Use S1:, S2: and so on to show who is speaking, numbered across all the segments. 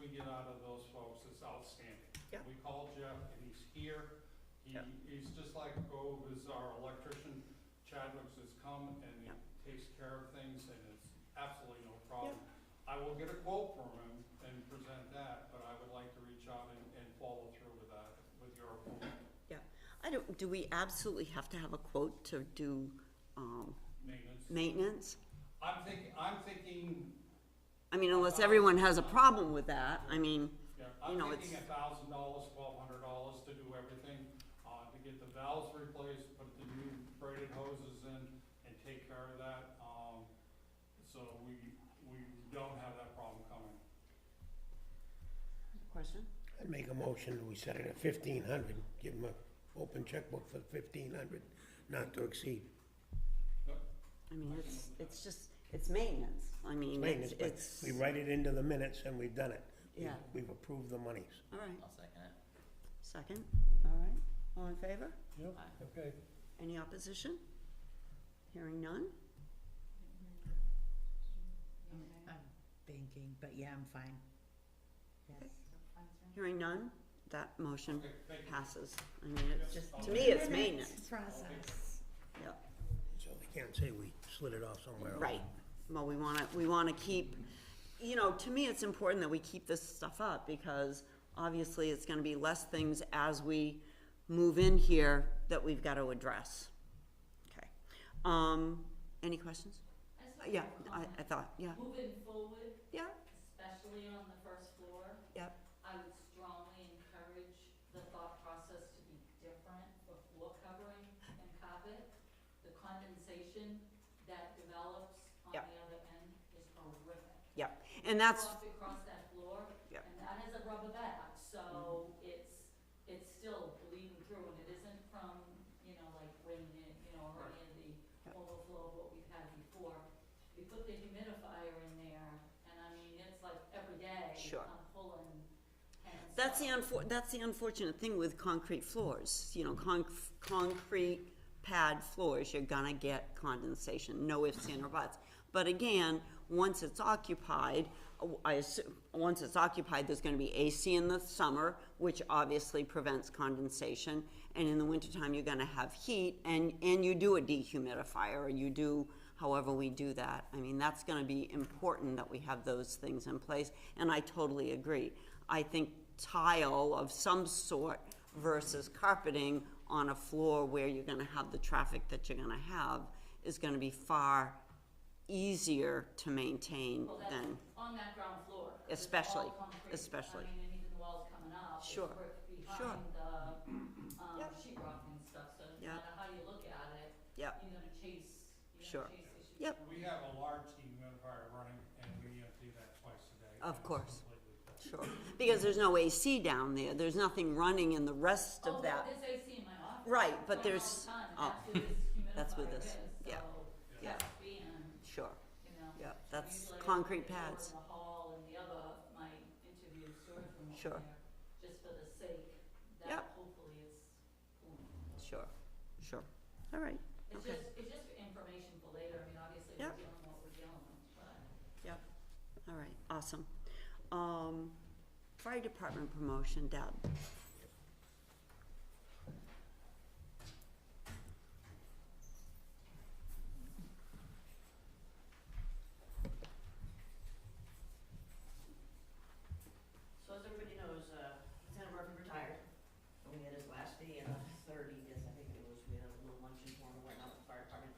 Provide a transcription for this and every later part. S1: get out of those folks is outstanding.
S2: Yeah.
S1: We called Jeff and he's here. He,
S2: Yeah.
S1: he's just like Gove is our electrician. Chadwick's has come and he
S2: Yeah.
S1: takes care of things and it's absolutely no problem. I will get a quote from him and present that, but I would like to reach out and, and follow through with that, with your approval.
S3: I don't, do we absolutely have to have a quote to do, um,
S1: maintenance.
S3: maintenance?
S1: I'm thinking, I'm thinking,
S3: I mean, unless everyone has a problem with that, I mean,
S1: yeah,
S3: You
S1: I'm
S3: know,
S1: thinking a
S3: it's-
S1: thousand dollars, twelve hundred dollars to do everything, uh, to get the valves replaced, put the new braided hoses in and take care of that, um, so we, we don't have that problem coming.
S3: question?
S4: I'd make a motion that we set it at fifteen hundred, give them a open checkbook for fifteen hundred, not to exceed.
S3: I mean, it's, it's just, it's maintenance, I mean,
S4: Maintenance,
S3: it's,
S4: but
S3: it's,
S4: we write it into the minutes and we've done it. We've-
S3: Yeah.
S4: We've approved the monies.
S3: all right,
S5: I'll second it.
S3: second, all right, all in favor?
S4: Okay.
S3: Any opposition? Hearing none?
S6: I'm thinking, but yeah, I'm fine. Yes.
S3: Hearing none, that motion
S1: Okay, thank you.
S3: passes. I mean, it's just, to me,
S6: Minutes
S3: it's maintenance,
S6: Process.
S3: yeah,
S4: So they can't say we slid it off somewhere else.
S3: right. Well, we wanna, we wanna keep, you know, to me, it's important that we keep this stuff up, because obviously, it's gonna be less things as we move in here that we've gotta address. Okay, um, any questions?
S7: I just
S3: Uh,
S7: have
S3: Yeah,
S7: one
S3: I, I
S7: comment.
S3: thought, yeah,
S7: Moving forward,
S3: yeah,
S7: especially on the first floor,
S3: yeah,
S7: I would strongly encourage the thought process to be different for floor covering and carpet. The condensation that develops on
S3: Yep.
S7: the other end is horrific.
S3: yeah, and that's,
S7: Walked across that floor,
S3: Yep.
S7: and that is a rubber back, so it's, it's still bleeding through, and it isn't from, you know, like raining, in, you know, or any of the
S3: Yep.
S7: overflow of what we've had before. We put the humidifier in there, and I mean, it's like every day,
S3: Sure.
S7: I'm pulling, and so.
S3: That's the unfor- that's the unfortunate thing with concrete floors, you know, conc- concrete pad floors, you're gonna get condensation, no ifs, ands, or buts. But again, once it's occupied, uh, I assume, once it's occupied, there's gonna be AC in the summer, which obviously prevents condensation. And in the wintertime, you're gonna have heat and, and you do a dehumidifier, or you do however we do that. I mean, that's gonna be important that we have those things in place, and I totally agree. I think tile of some sort versus carpeting on a floor where you're gonna have the traffic that you're gonna have is gonna be far easier to maintain
S7: Well, that's
S3: than,
S7: on that ground floor. 'cause it's all
S3: Especially,
S7: concrete.
S3: especially.
S7: I mean, and even the walls coming up. it's
S3: Sure,
S7: brick
S3: sure.
S7: Behind the, um,
S3: Yep.
S7: sheet rock and stuff, so no
S3: Yep.
S7: matter how you look at it,
S3: Yep.
S7: you're gonna chase, you're
S3: Sure.
S7: gonna chase issues.
S3: Yep.
S1: We have a large humidifier running and we empty that twice a day.
S3: Of
S1: and it's
S3: course.
S1: completely full.
S3: sure. Because there's no AC down there, there's nothing running in the rest
S7: Oh,
S3: of that.
S7: there's AC in my office.
S3: Right, but
S7: Going
S3: there's-
S7: all the time, and
S3: that's
S7: oh, that's
S3: with
S7: where this
S3: this,
S7: humidifier
S3: yeah,
S7: is, so,
S3: yeah.
S7: that's being,
S3: Sure,
S7: you know.
S3: yeah, that's
S7: usually I
S3: concrete
S7: put the door
S3: pads,
S7: In the hall and the other, my interview storage room over
S3: Sure.
S7: there, just for the sake
S3: Yep.
S7: that hopefully it's cooling.
S3: sure, sure, all right.
S7: It's
S3: Okay.
S7: just, it's just for information for later, I mean, obviously
S3: Yep.
S7: we're dealing with what we're dealing with, but.
S3: Yep, all right, awesome. Um, fire department promotion, Deb.
S8: So as everybody knows, uh, Lieutenant Murphy retired, and we had his last day on the thirtieth, I think it was, we had a little luncheon for him and whatnot with the fire department.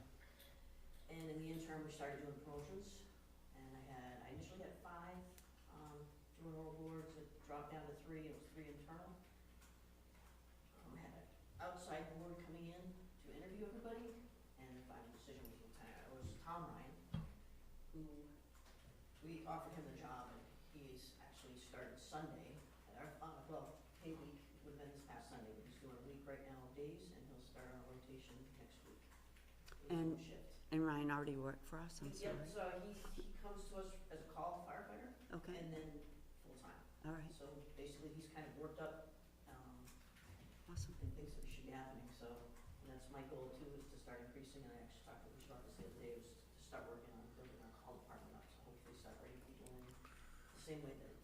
S8: And in the interim, we started doing promotions, and I had, I initially had five, um, during all boards, it dropped down to three, it was three internal. Um, I had an outside board coming in to interview everybody, and the final decision was Lieutenant, it was Tom Ryan, who we offered him the job and he's actually started Sunday at our, uh, well, pay week would have been this past Sunday, but he's doing a week right now of days and he'll start on a rotation next week. He's doing
S3: And-
S8: shift.
S3: And Ryan already worked for us, I'm sorry.
S8: Yep, so he, he comes to us as a call firefighter
S3: Okay,
S8: and then full-time.
S3: all right,
S8: So basically, he's kind of worked up, um,
S3: awesome.
S8: and thinks that it should be happening, so, and that's my goal too, is to start increasing, and I actually talked to Rich about this the other day, was to start working on building our call department up, so hopefully start bringing people in the same way that um,